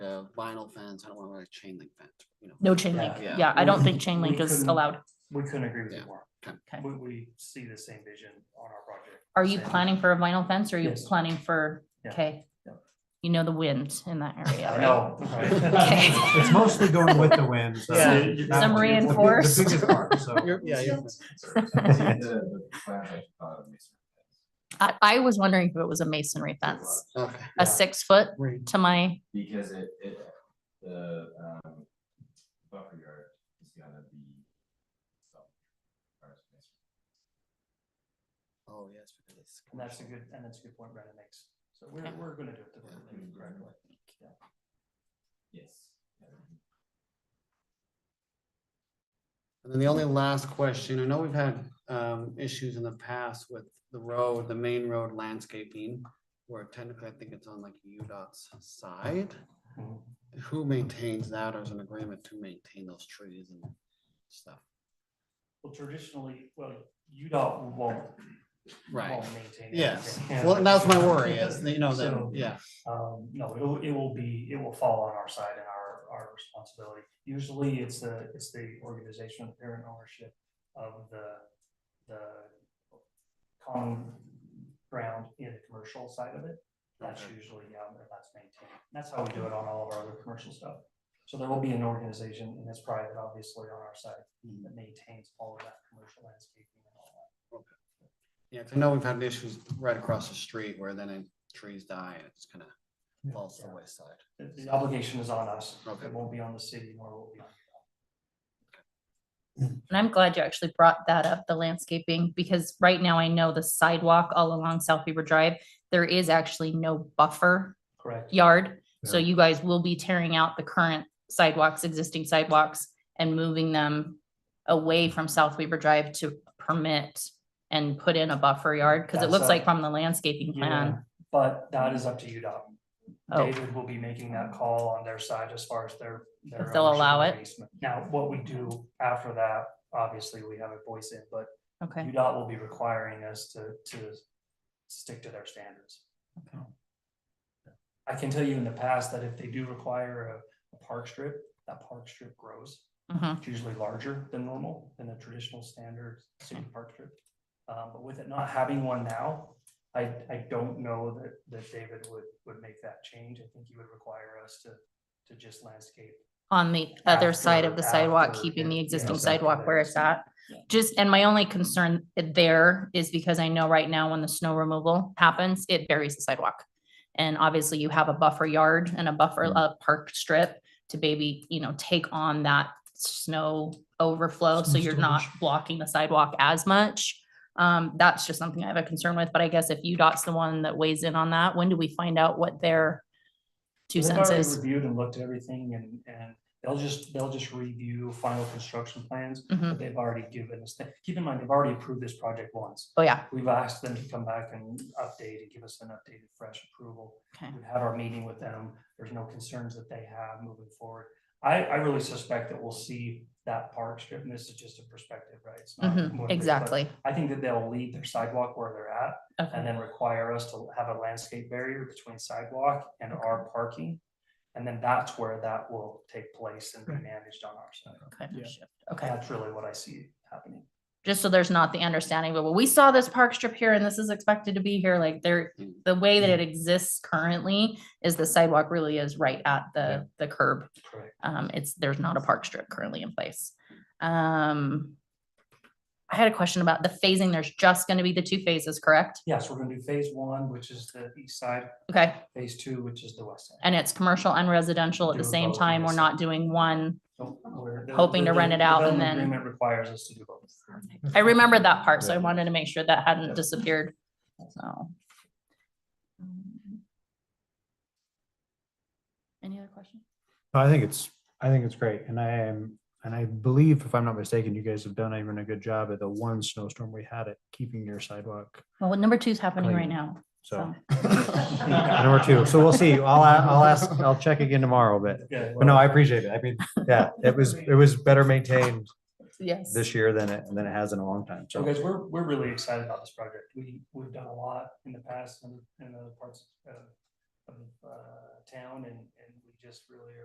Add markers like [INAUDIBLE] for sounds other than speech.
a vinyl fence, I don't want like a chain link fence, you know. No chain link. Yeah, yeah. Yeah, I don't think We- chain we link is couldn't- allowed. We couldn't agree with Yeah. you more. Okay. We, we see the same vision on our project. Are you Same. planning for a vinyl fence or are you Yes. planning for, Yeah. okay? Yeah. You know the wind in that area, I right? know. [LAUGHS] Okay. right? It's mostly going with the wind. so Yeah. that was Some the big- the reinforced. biggest part, so. [LAUGHS] You're- Oh, Yeah, you're- I, I was wondering if it was a masonry fence, okay, Yeah. a six foot great. to my, Because it, it, the, um, buffer yard is gonna be. oh, so, or it's- Oh, yes. because it's- And that's a good, and that's a good point Brandon makes. So we're, Okay. we're gonna do it the right way, Mm-hmm. Mhm. correctly. Yes. yeah. And then the only last question, I know we've had um issues in the past with the road, the main road landscaping. Where technically I think it's on like UDOT's side. Mhm. Who maintains that or is an agreement to maintain those trees and stuff? Well, traditionally, well, UDOT won't, Right, won't maintain. it. yes, They can't. well, and that's my worry is, that, you know, that, So- yeah, Um, no, it will, it will be, it will fall on our side and our, our responsibility. Usually it's the, it's the organization, the parent ownership of the, the common ground in the commercial side of it. That's Okay. usually, yeah, where that's maintained. That's how we do it on all of our other commercial stuff. So there will be an organization and it's private, obviously, on our side Mhm. that maintains all of that commercial landscaping and all that. yeah, 'cause I know we've had issues right across the street where then it- trees die and it's kind of Yeah. falls to the wayside. The- The obligation is on us. Okay. It won't be on the city nor will it be on And I'm glad you actually brought that up, the landscaping, because right now I know the sidewalk all along South Beaver Drive, there is actually no buffer Correct. yard. So Yeah. you guys will be tearing out the current sidewalks, existing sidewalks and moving them away from South Weaver Drive to permit and put in a buffer yard, because it That's looks a- like from the landscaping plan. But that is up to UDOT. Oh. David will be making that call on their side as far as their. their If they'll ownership allow of it. the basement. Now, what we do after that, obviously, we have a voice in, but Oh, Okay, UDOT will be requiring us to, to stick to their standards. Okay. I can tell you in the past that if they do require a- a park strip, that park strip grows. mhm, It's usually larger than normal, than a traditional standard city park strip. Um, but with it not having one now, I, I don't know that, that David would, would make that change. I think he would require us to, to just landscape. on the other side of After- the sidewalk, after keeping it- the yeah, existing after sidewalk where the- it's at. Yeah. Just, and my only concern there is because I know right now when the snow removal happens, it buries the sidewalk. And obviously you have a buffer yard and a buffer, a park strip to maybe, you know, take on that snow overflow. So Snow you're not blocking the sidewalk as much. Um, that's just something I have a concern with, but I guess if UDOT's the one that weighs in on that, when do we find out what their two They've already cents is? Reviewed and looked at everything and, and they'll just, they'll just review final construction plans. Mhm. that They've already given us, keep in mind, they've already approved this project once. Oh, yeah. We've asked them to come back and update and give us an updated fresh approval. Okay. We had our meeting with them. There's no concerns that they have moving forward. I, I really suspect that we'll see that park strip, and this is just a perspective, right? It's not Mhm, one thing, but Exactly. I think that they'll leave their sidewalk where they're at and Okay. then require us to have a landscape barrier between sidewalk and our parking. And then that's where that will take place and be managed on our side. Kind of shift. Okay. That's really what I see happening. just so there's not the understanding, but well, we saw this park strip here and this is expected to be here, like there, Mm. the way that it exists currently is the sidewalk really is right at the, the curb. Correct. Um, it's, there's not a park strip currently in place. Um, I had a question about the phasing. There's just gonna be the two phases, correct? Yes, we're gonna do phase one, which is the east side, Okay, phase two, which is the west side. and it's commercial and residential at the Doing same both, time. We're yes. not doing one. So we're- the- Hoping to the- rent it the out and development then- Agreement requires us to do both. I remembered that part, so I wanted to make sure that hadn't disappeared, so. Any other questions? I think it's, I think it's great. And I am, and I believe if I'm not mistaken, you guys have done even a good job at the one snowstorm we had at keeping your sidewalk. Well, number two's happening right Clean. now, So [LAUGHS] so. number two. So we'll see. I'll, a- I'll ask, I'll check again tomorrow, but, Yeah. but no, I appreciate it. I mean, yeah, it was, it was better maintained Yes. this year than it, than it has in a long time. So So guys, we're, we're really excited about this project. We, we've done a lot in the past and in other parts of, of, uh, town and, and we just really